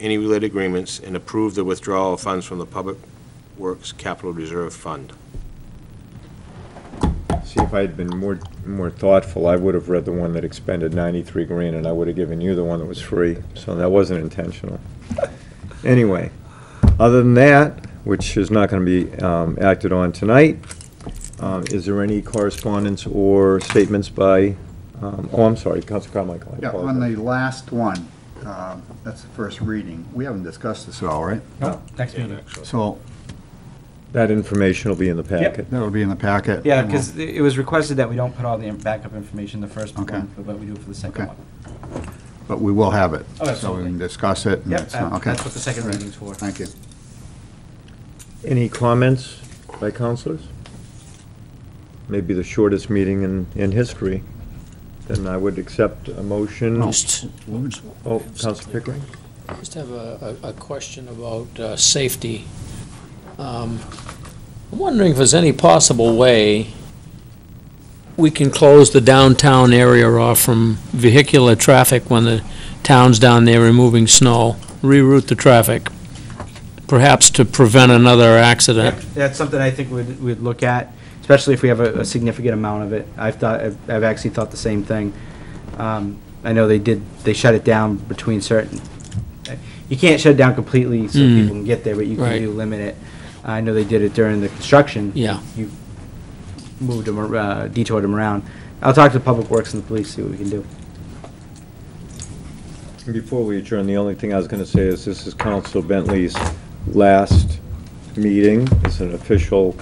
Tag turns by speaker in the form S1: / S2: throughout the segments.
S1: any related agreements and approve the withdrawal of funds from the Public Works Capital Reserve Fund.
S2: See, if I had been more, more thoughtful, I would have read the one that expended 93 grand, and I would have given you the one that was free, so that wasn't intentional. Anyway, other than that, which is not going to be um, acted on tonight, um, is there any correspondence or statements by, um, oh, I'm sorry, Council Carmichael, I
S3: Yeah, on
S2: apologize.
S3: the last one, um, that's the first reading. We haven't discussed this at all, right?
S4: Nope, next meeting.
S3: So
S2: That information will be in the packet.
S3: that'll be in the packet.
S4: Yeah, because it was requested that we don't put all the backup information in the first
S3: Okay.
S4: one, but we do it for the second
S3: Okay.
S4: one.
S3: But we will have it.
S4: Oh,
S3: So we
S4: absolutely.
S3: can discuss it. and
S4: Yep,
S3: it's not-
S4: that-
S3: okay.
S4: that's what the second
S3: All right.
S4: reading's for.
S3: Thank you.
S2: Any comments by councilors? Maybe the shortest meeting in, in history. Then I would accept a motion.
S5: Just,
S2: Oh, Counsel Pickering?
S5: just have a, a a question about uh, safety. Um, I'm wondering if there's any possible way we can close the downtown area off from vehicular traffic when the town's down there removing snow, reroute the traffic, perhaps to prevent another accident.
S4: Yep, That's something I think we'd, we'd look at, especially if we have a, a significant amount of it. I've thought, I've I've actually thought the same thing. Um, I know they did, they shut it down between certain, you can't shut it down completely so
S5: Mm.
S4: people can get there, but you can
S5: Right.
S4: do limit it. I know they did it during the construction.
S5: Yeah.
S4: You moved them, ar- uh, detoured them around. I'll talk to Public Works and the police, see what we can do.
S2: Before we adjourn, the only thing I was going to say is this is Counsel Bentley's last meeting as an official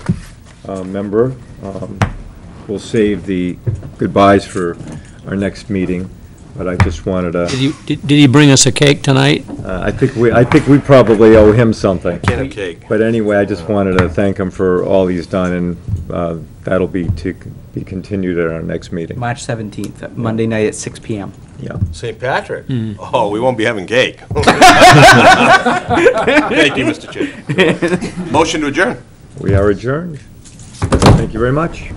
S2: uh, member. Um, We'll save the goodbyes for our next meeting, but I just wanted to,
S5: Did he, did did he bring us a cake tonight?
S2: uh, I think we, I think we probably owe him something.
S1: Can of cake.
S2: But anyway, I just wanted to thank him for all he's done, and uh, that'll be to be continued at our next meeting.
S4: March 17th, Monday night at 6 PM.
S2: Yeah.
S1: St. Patrick? Oh, we won't be having cake. Thank you, Mr. Chair. Motion to adjourn.
S2: We are adjourned. Thank you very much.